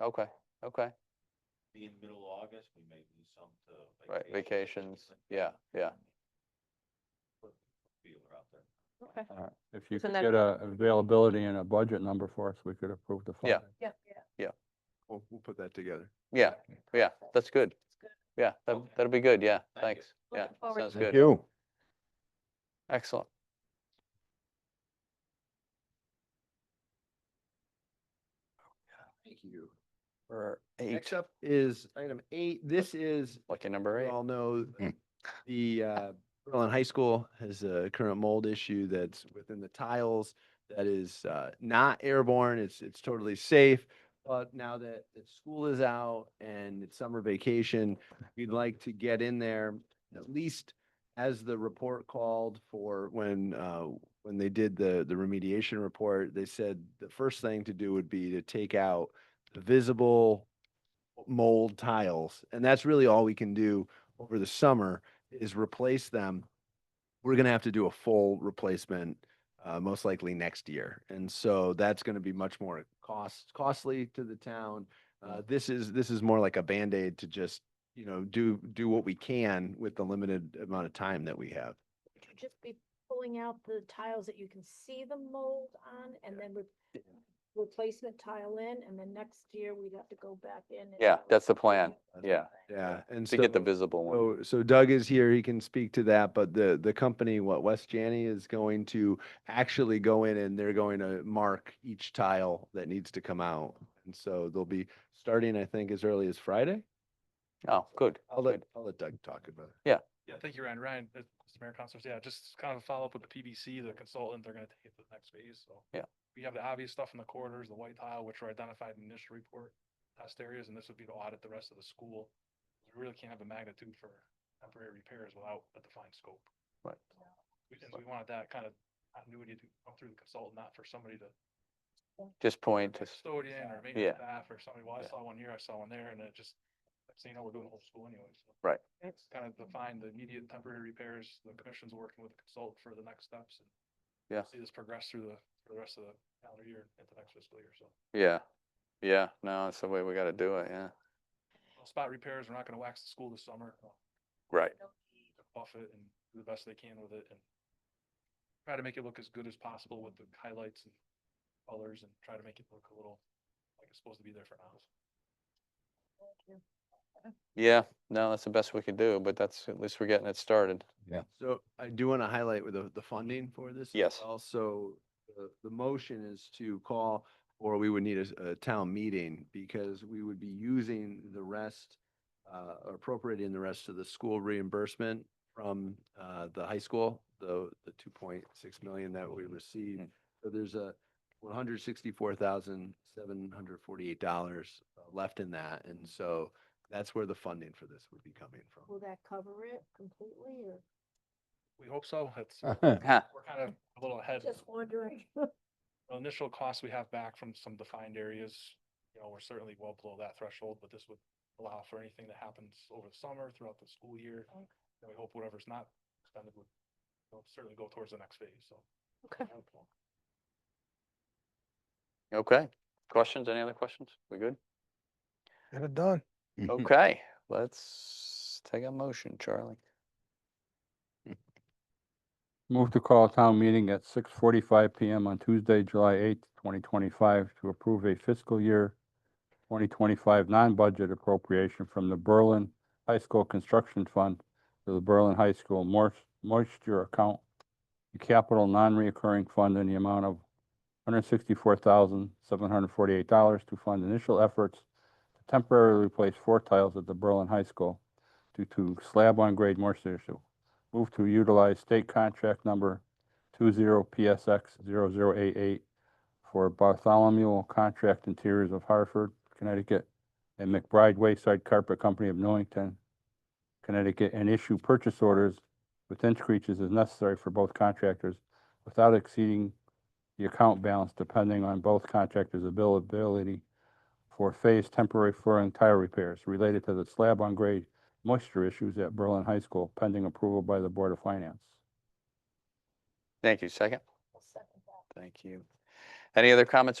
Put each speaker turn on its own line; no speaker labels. Okay, okay,
Be in middle of August, we may lose some to.
right,
vacation,
vacations,
like
yeah,
that.
yeah.
Put a Feeler out there.
Okay.
All right. If you
So
could
then-
get a availability and a budget number for us, we could approve the
Yeah.
funding.
Yeah.
We'll, we'll put that together.
Yeah, yeah, that's good. Yeah, that,
Okay.
that'll be good, yeah,
Thank you.
thanks, yeah,
Looking forward
sounds
to
good,
you.
excellent.
Thank you.
Or eight,
Next up is item eight. This is,
lucky number
we
eight,
all know,
Mm.
the, uh, Berlin High School has a current mold issue that's within the tiles that is, uh, not airborne. It's, it's totally safe. But now that the school is out and it's summer vacation, we'd like to get in there at least as the report called for when, uh, when they did the, the remediation report, they said the first thing to do would be to take out the visible mold tiles. And that's really all we can do over the summer is replace them. We're gonna have to do a full replacement, uh, most likely next year. And so that's gonna be much more cost, costly to the town. Uh, this is, this is more like a Band-Aid to just, you know, do, do what we can with the limited amount of time that we have.
Would you just be pulling out the tiles that you can see the mold on and then re- replacement tile in, and then next year we'd have to go back in. and
Yeah,
do
that's the
it
plan.
again.
yeah,
Yeah, and
to get the
so-
visible one,
So, Oh, so Doug is here, he can speak to that, but the, the company, what, West Janney is going to actually go in and they're going to mark each tile that needs to come out. And so they'll be starting, I think, as early as Friday.
oh, good,
I'll let,
good,
I'll let Doug talk about it.
Yeah, thank you, Ryan. Ryan, uh, Mr. Mayor, Councilors, yeah, just kind of a follow up with the PBC, the consultant, they're gonna take it to the next phase, so.
Yeah.
We have the obvious stuff in the corridors, the white tile, which were identified in the initial report, test areas, and this would be to audit the rest of the school. We really can't have a magnitude for temporary repairs without a defined scope.
Right.
We, and we wanted that kind of continuity to come through the consultant, not for somebody to
just point, to s-
custodian or
Yeah.
maintenance staff or somebody, well, I
Yeah.
saw one here, I saw one there, and it just, so you know, we're doing the whole school anyway, so.
Right.
It's kind of define the immediate temporary repairs, the commission's working with the consultant for the next steps. and
Yeah.
See this progress through the, for the rest of the calendar year and the next fiscal year, so.
yeah, yeah, no, that's the way we gotta do it, yeah.
Spot repairs, we're not gonna wax the school this summer, uh,
Right.
buff it and do the best they can with it and try to make it look as good as possible with the highlights and colors and try to make it look a little like it's supposed to be there for now.
Thank you.
Yeah, no, that's the best we could do, but that's, at least we're getting it started.
So I do want to highlight with the, the funding for this.
Yes.
Also, the, the motion is to call, or we would need a, s- a town meeting because we would be using the rest, uh, or appropriating the rest of the school reimbursement from, uh, the high school, the, the two point six million that we received. So there's a one hundred sixty-four thousand, seven hundred forty-eight dollars left in that. And so that's where the funding for this would be coming from.
Will that cover it completely or
We hope so. That's,
Uh.
Huh,
we're kind of a little ahead.
just wondering?
The Initial costs we have back from some defined areas, you know, we're certainly well below that threshold, but this would allow for anything that happens over the summer, throughout the school year.
Okay.
And we hope whatever's not expended would you know, certainly go towards the next phase, so.
Okay.
Okay, questions, any other questions? We good?
Get it done.
Okay, let's take a motion, Charlie.
Move to call a town meeting at six forty-five PM on Tuesday, July eighth, twenty twenty-five to approve a fiscal year twenty twenty-five non-budget appropriation from the Berlin High School Construction Fund to the Berlin High School mois- moisture account, the capital non-reoccurring fund in the amount of hundred sixty-four thousand, seven hundred forty-eight dollars to fund initial efforts to temporarily replace four tiles at the Berlin High School due to slab on grade moisture issue. Move to utilize state contract number two zero PSX zero zero eight eight for Bartholomew Contract Interiors of Hartford, Connecticut, and McBride Wayside Carpet Company of Newington, Connecticut, and issue purchase orders with inch creases as necessary for both contractors without exceeding the account balance depending on both contractors' availability for phased temporary flooring tile repairs related to the slab on grade moisture issues at Berlin High School pending approval by the Board of Finance.
Thank you, second,
I'll second that.
thank you. Any other comments or